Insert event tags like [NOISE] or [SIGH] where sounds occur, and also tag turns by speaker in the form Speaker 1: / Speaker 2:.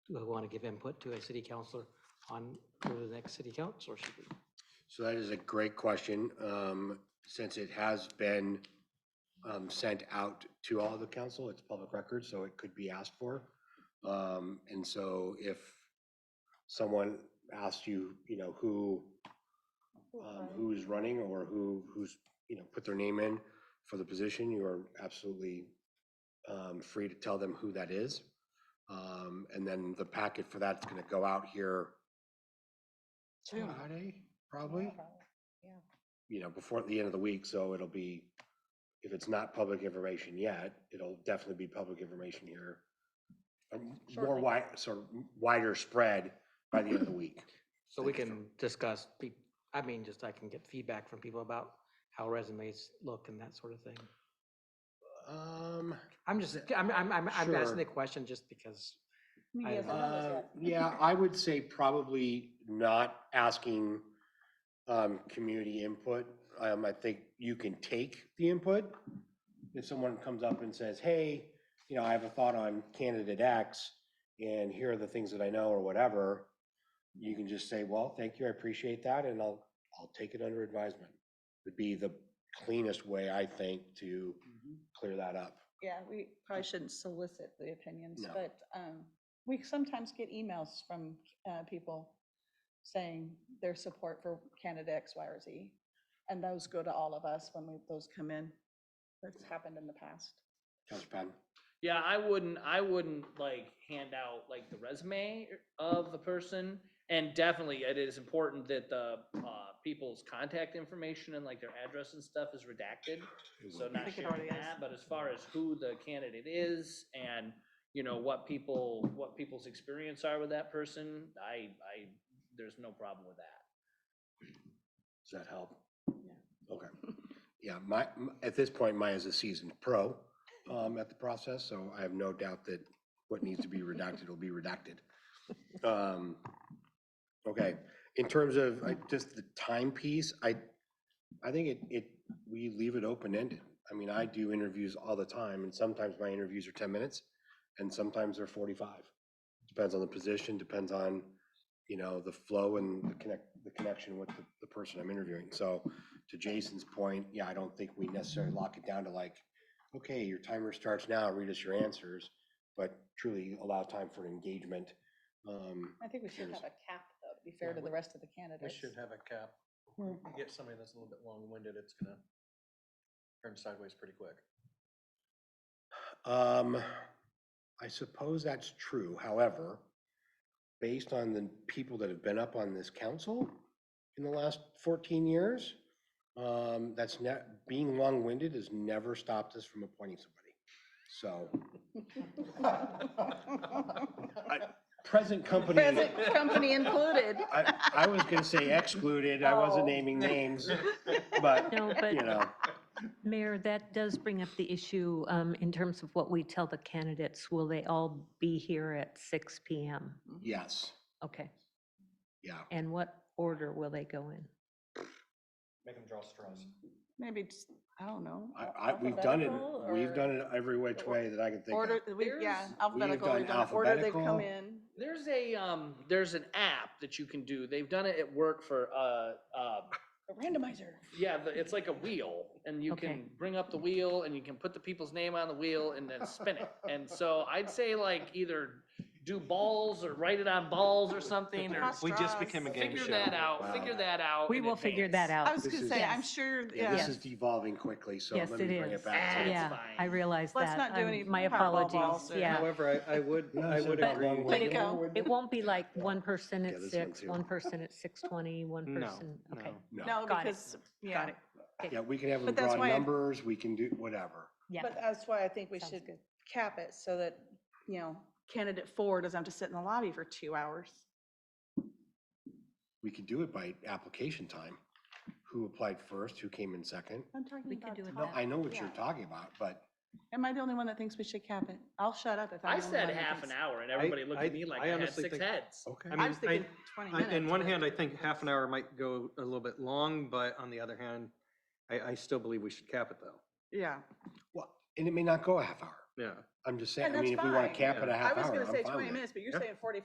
Speaker 1: who want to give input to a city councillor on who the next city councillor should be.
Speaker 2: So that is a great question. Um, since it has been um, sent out to all the council, it's public record, so it could be asked for. Um, and so if someone asked you, you know, who, um, who is running or who, who's, you know, put their name in for the position, you are absolutely um, free to tell them who that is. Um, and then the packet for that's gonna go out here Friday, probably. you know, before the end of the week, so it'll be, if it's not public information yet, it'll definitely be public information here. um, More
Speaker 3: Shortly.
Speaker 2: wide, sort of wider spread by the end of the week.
Speaker 1: So we
Speaker 2: Thank you
Speaker 1: can discuss, pe- I mean, just I can get feedback from people about how resumes look and that sort of thing.
Speaker 2: Um,
Speaker 1: I'm just,
Speaker 2: The-
Speaker 1: I'm, I'm, I'm I'm
Speaker 2: Sure.
Speaker 1: asking the question just because, I-
Speaker 3: Yes, I know this,
Speaker 2: uh,
Speaker 3: yes.
Speaker 2: yeah, I would say probably not asking, um, community input. Um, I think you can take the input. If someone comes up and says, hey, you know, I have a thought on candidate X and here are the things that I know or whatever, you can just say, well, thank you, I appreciate that, and I'll, I'll take it under advisement. Would be the cleanest way, I think, to
Speaker 4: Mm-hmm.
Speaker 2: clear that up.
Speaker 3: Yeah, we probably shouldn't solicit the opinions,
Speaker 2: No.
Speaker 3: but um, we sometimes get emails from uh, people saying their support for candidate X, Y, or Z. And those go to all of us when we, those come in. That's happened in the past.
Speaker 2: Counselor Patton?
Speaker 4: Yeah, I wouldn't, I wouldn't like hand out like the resume of the person. And definitely it is important that the, uh, people's contact information and like their address and stuff is redacted. So not
Speaker 5: think it
Speaker 4: sharing
Speaker 5: already is.
Speaker 4: that, but as far as who the candidate is and, you know, what people, what people's experience are with that person, I, I, there's no problem with that.
Speaker 2: Does that help?
Speaker 3: Yeah.
Speaker 2: Okay. Yeah, my, m- at this point, Maya's a seasoned pro um, at the process, so I have no doubt that what needs to be redacted will be redacted. Um, Okay, in terms of like, just the time piece, I, I think it, it, we leave it open-ended. I mean, I do interviews all the time, and sometimes my interviews are 10 minutes, and sometimes they're 45. Depends on the position, depends on, you know, the flow and the connect, the connection with the, the person I'm interviewing. So to Jason's point, yeah, I don't think we necessarily lock it down to like, okay, your timer starts now, read us your answers, but truly allow time for engagement. Um,
Speaker 3: I think we should have a cap, though, to be fair
Speaker 6: Yeah,
Speaker 3: to the
Speaker 6: we-
Speaker 3: rest of the
Speaker 6: We
Speaker 3: candidates.
Speaker 6: should have a cap. You get somebody that's a little bit long-winded, it's gonna turn sideways pretty quick. [LAUGHS]
Speaker 2: Um, I suppose that's true. However, based on the people that have been up on this council in the last fourteen years, um, that's not, being long-winded has never stopped us from appointing somebody. So present company,
Speaker 3: Present company included.
Speaker 2: [LAUGHS] I, I was gonna say excluded. I
Speaker 3: Oh.
Speaker 2: wasn't naming
Speaker 3: [LAUGHS]
Speaker 2: names, but, [LAUGHS]
Speaker 5: No,
Speaker 2: you
Speaker 5: but
Speaker 2: know,
Speaker 5: Mayor, that does bring up the issue um, in terms of what we tell the candidates. Will they all be here at 6 PM?
Speaker 2: yes,
Speaker 5: Okay.
Speaker 2: yeah.
Speaker 5: And what order will they go in?
Speaker 6: Make them draw straws.
Speaker 3: Maybe, it's- I don't know.
Speaker 2: I, I, we've done it,
Speaker 3: alphabetical
Speaker 2: we've
Speaker 3: or-
Speaker 2: done it every which way that I can think of.
Speaker 3: Order, we, yeah,
Speaker 4: There's-
Speaker 3: alphabetical, we've
Speaker 2: done
Speaker 3: done order they've
Speaker 2: alphabetical.
Speaker 3: come in.
Speaker 4: There's a, um, there's an app that you can do. They've done it at work for, uh, uh,
Speaker 3: A Randomizer.
Speaker 4: Yeah, the- it's like a wheel, and you
Speaker 5: Okay.
Speaker 4: can bring up the wheel, and you can put the people's name on the wheel, and then spin
Speaker 5: [LAUGHS]
Speaker 4: it. And so I'd say like either do balls or write it on balls or something, or
Speaker 3: We just became a
Speaker 4: figure that out. Figure that out.
Speaker 5: We
Speaker 4: in
Speaker 5: will figure that
Speaker 3: Oh,
Speaker 4: advance.
Speaker 3: I
Speaker 5: out.
Speaker 3: was
Speaker 2: This
Speaker 3: gonna
Speaker 2: is-
Speaker 3: say, I'm
Speaker 5: Yes.
Speaker 3: sure,
Speaker 2: Yeah,
Speaker 3: yeah,
Speaker 2: this is devolving quickly, so
Speaker 5: Yes,
Speaker 2: let me
Speaker 5: it
Speaker 2: bring
Speaker 5: is.
Speaker 2: it back to.
Speaker 4: It's
Speaker 5: Yeah, I
Speaker 4: fine.
Speaker 5: realize that.
Speaker 3: Let's not do
Speaker 5: I'm-
Speaker 3: any
Speaker 5: My
Speaker 3: Powerball
Speaker 5: apologies,
Speaker 3: balls or- [LAUGHS]
Speaker 5: yeah.
Speaker 6: However, I, I would, I
Speaker 2: said
Speaker 6: would
Speaker 2: that
Speaker 6: agree.
Speaker 2: wrong
Speaker 3: There you
Speaker 2: way.
Speaker 3: go.
Speaker 5: It won't be like one person
Speaker 2: Yeah,
Speaker 5: at
Speaker 2: this one
Speaker 5: 6,
Speaker 2: too.
Speaker 5: one person at 6:20, one
Speaker 6: No,
Speaker 5: person, okay.
Speaker 3: no,
Speaker 5: Got it.
Speaker 3: because, yeah.
Speaker 5: it.
Speaker 2: Yeah, we can have them
Speaker 3: But that's
Speaker 2: broad
Speaker 3: why I-
Speaker 2: numbers, we can do whatever.
Speaker 5: Yeah,
Speaker 3: But that's why I think we
Speaker 5: sounds
Speaker 3: should
Speaker 5: good.
Speaker 3: cap it so that, you know, candidate four doesn't have to sit in the lobby for two hours.
Speaker 2: We could do it by application time, who applied first, who came in second.
Speaker 3: I'm talking
Speaker 5: We could
Speaker 3: about
Speaker 5: do it
Speaker 2: No,
Speaker 5: that
Speaker 2: I
Speaker 3: time.
Speaker 2: know what you're
Speaker 3: Yeah.
Speaker 2: talking about, but
Speaker 3: Am I the only one that thinks we should cap it? I'll shut up if I'm
Speaker 4: I
Speaker 3: the only one
Speaker 4: said
Speaker 3: that thinks.
Speaker 4: half an hour, and everybody looked
Speaker 6: I-
Speaker 4: at me like
Speaker 6: I
Speaker 4: I had
Speaker 6: honestly
Speaker 4: six
Speaker 6: think-
Speaker 4: heads.
Speaker 2: okay.
Speaker 6: I
Speaker 3: I
Speaker 6: mean,
Speaker 3: was thinking twenty
Speaker 6: I-
Speaker 3: minutes.
Speaker 6: In one
Speaker 3: but-
Speaker 6: hand, I think half an hour might go a little bit long, but on the other hand, I, I still believe we should cap it though.
Speaker 3: Yeah.
Speaker 2: Well, and it may not go a half hour.
Speaker 6: Yeah.
Speaker 2: I'm just saying,
Speaker 3: And
Speaker 2: I
Speaker 3: that's
Speaker 2: mean, if we want
Speaker 3: fine.
Speaker 2: to cap it a
Speaker 6: Yeah.
Speaker 2: half
Speaker 3: I
Speaker 2: hour,
Speaker 3: was
Speaker 2: I'm fine
Speaker 3: gonna
Speaker 2: with it.
Speaker 3: say twenty minutes, but you're
Speaker 2: Yeah.
Speaker 3: saying forty-five